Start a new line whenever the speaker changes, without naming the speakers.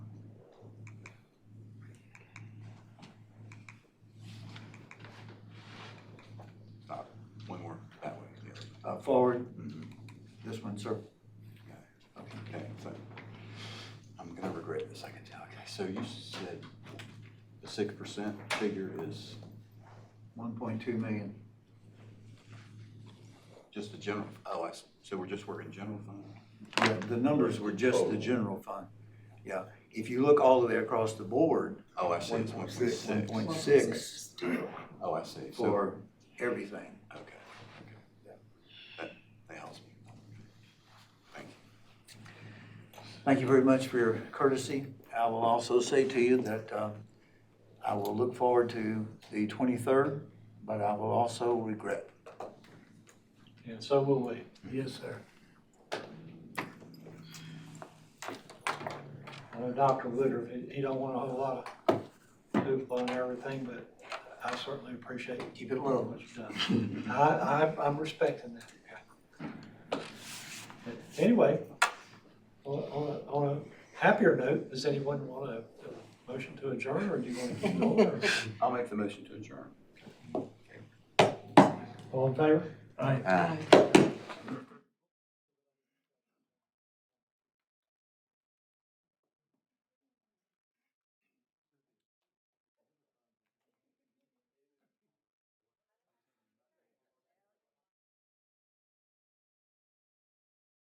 uh, forward, this one, sir.
Mm-hmm. Okay, so I'm gonna regret this, I can tell. Okay, so you said the six percent figure is
One point two million.
just the general, oh, I, s- so we're just working general fund?
Yeah, the numbers were just
Oh.
the general fund. Yeah, if you look all the way across the board,
Oh, I see, it's one point
1.6,
six.
1.6.
Well,
Six.
it's-
Oh, I see. So-
for everything.
Okay, okay. That, that helps me. Thank you.
Thank you very much for your courtesy. I will also say to you that um, I will look forward to the 23rd, but I will also regret.
And so will we.
Yes, sir.
I know Dr. Woodard, he- he don't want a whole lot of hoopla and everything, but I certainly appreciate
Keep it low.
what you've done. I, I, I'm respecting that. But Anyway, on, on a, on a happier note, does anyone want a, a motion to adjourn, or do you want to keep going? or-
I'll make the motion to adjourn.
All in favor?
Aye.